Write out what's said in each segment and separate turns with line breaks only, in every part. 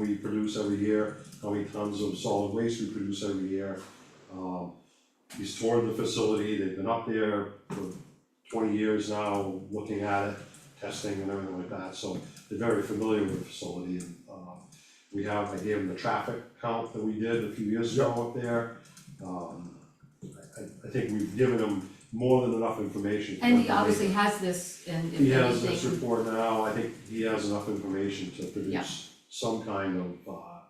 we produce every year, how many tons of solid waste we produce every year. Um, he's toured the facility, they've been up there for twenty years now, looking at it, testing and everything like that, so they're very familiar with the facility and, um, we have, I gave them the traffic count that we did a few years ago up there. Um, I, I- I think we've given them more than enough information. for
And
them
he
to make-
obviously has this and if
He has this
anything,
report now, I think he has enough information to
Yeah.
produce some kind of, uh,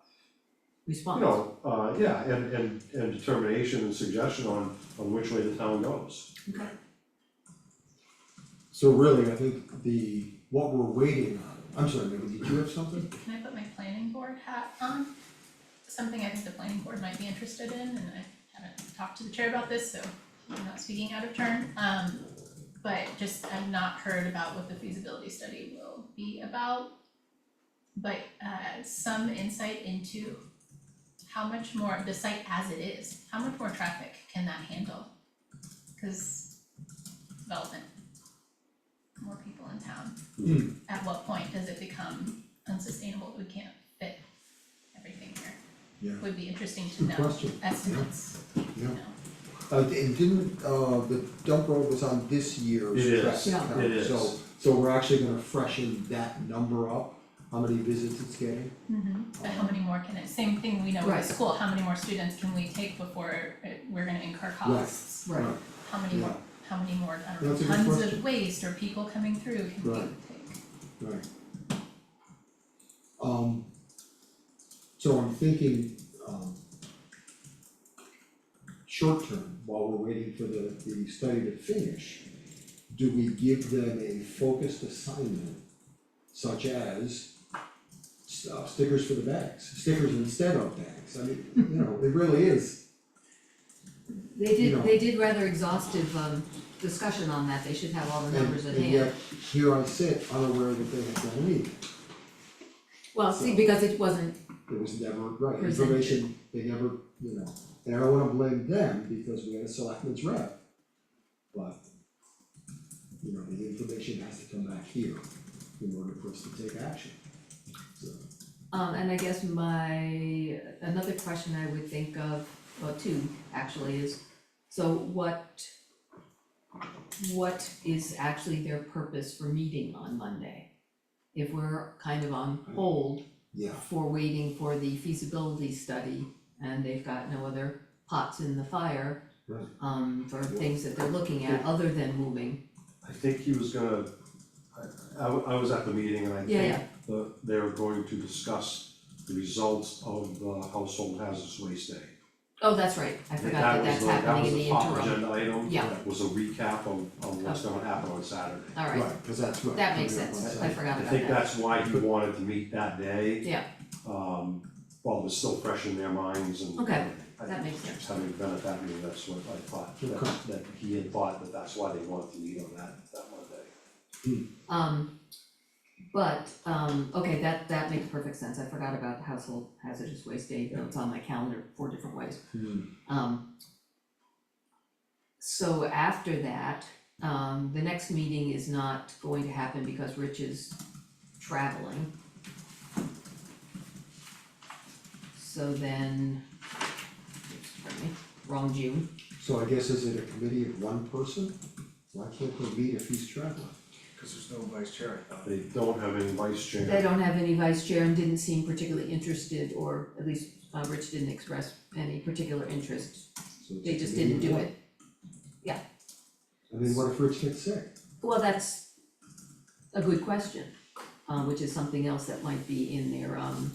you
response.
know, uh, yeah, and, and, and determination and suggestion on, on which way the town goes.
Okay.
So really, I think the, what we're waiting on, I'm sorry, Megan, did you have something?
Can I put my planning board hat on? Something I think the planning board might be interested in, and I haven't talked to the chair about this, so I'm not speaking out of turn. Um, but just, I've not heard about what the feasibility study will be about. But, uh, some insight into how much more, the site as it is, how much more traffic can that handle? Cause development, more people in town.
Hmm.
At what point does it become unsustainable, we can't fit everything here?
Yeah.
Would be interesting to
Good
know
question.
estimates, you
Yeah.
know,
Uh, and didn't, uh, the dump road was on this year's
It is.
traffic
Yeah.
count,
It
so,
is.
so we're actually gonna freshen that number up, how many visits it's getting.
Mhm. but how many more can it, same thing we know
Right.
with school, how many more students can we take before it- we're gonna incur costs?
Right,
How many more,
Yeah.
how many more, I don't know,
That's a good
tons
question.
of waste or people coming through can we take?
Right. Right. Um, so I'm thinking, um. Short term, while we're waiting for the, the study to finish, do we give them a focused assignment? Such as s- uh, stickers for the bags, stickers instead of bags, I mean, you know, it really is,
they
know.
did, they did rather exhaustive um discussion on that, they should have all the
and,
numbers at hand.
and yet, here I sit unaware that they have done anything.
Well, see, because it wasn't,
It was never, right,
Presented.
information, they never, you know, and I don't wanna blame them because we had a selectman's rep. But, you know, the information has to come back here in order for us to take action. So,
um and I guess my, another question I would think of, well, two actually is, so what what is actually their purpose for meeting on Monday? If we're kind of on hold
yeah,
for waiting for the feasibility study and they've got no other pots in the fire.
Right.
Um, for things that they're looking at other than moving,
I think he was gonna, I, I wa- I was at the meeting and I
Yeah,
think
yeah.
that they were going to discuss the results of the household hazardous waste day.
oh, that's right, I
And
forgot that that's happening in the interim.
was the, that was the top agenda item,
Yeah.
that was a recap of, of what's gonna happen on Saturday.
Alright,
right, cause that's right.
that makes
coming up on
sense, I
Saturday.
I
forgot about that.
think that's why he wanted to meet that day.
Yeah.
Um, while it was still fresh in their minds and.
Okay,
I-
that makes sense.
Having been at that meeting, that's what I thought,
Okay.
that, that he had thought that that's why they wanted to meet on that, that Monday.
Um, but, um, okay, that, that makes perfect sense, I forgot about household hazardous waste day, though it's on my calendar four different ways.
Hmm.
Um. So after that, um, the next meeting is not going to happen because Rich is traveling. So then, oops, pardon me, wrong June,
So I guess is it a committee of one person? Why can't we meet if he's traveling?
Cause there's no vice chair, I thought.
They don't have any vice chair.
they don't have any vice chair and didn't seem particularly interested, or at least, uh, Rich didn't express any particular interest,
So it's a
they just
committee
didn't
of
do
one.
it. Yeah.
I mean, what if Rich gets sick?
Well, that's a good question, uh, which is something else that might be in their, um,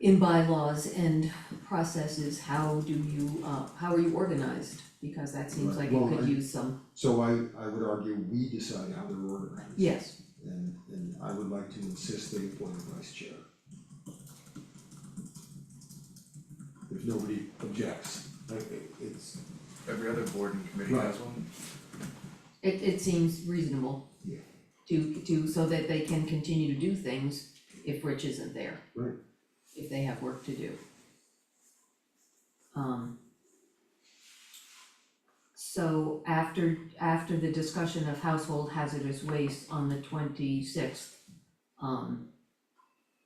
in bylaws and processes, how do you, uh, how are you organized? Because that seems like
Right,
it
well,
could
I-
use some,
So I I would argue we decide how they're organized.
yes,
And and I would like to insist they appoint a vice chair. If nobody objects, like it- it's,
Every other board and committee
Right.
has one.
it, it seems reasonable
Yeah.
to, to, so that they can continue to do things if Rich isn't there.
Right.
If they have work to do. Um. So after, after the discussion of household hazardous waste on the twenty-sixth, um,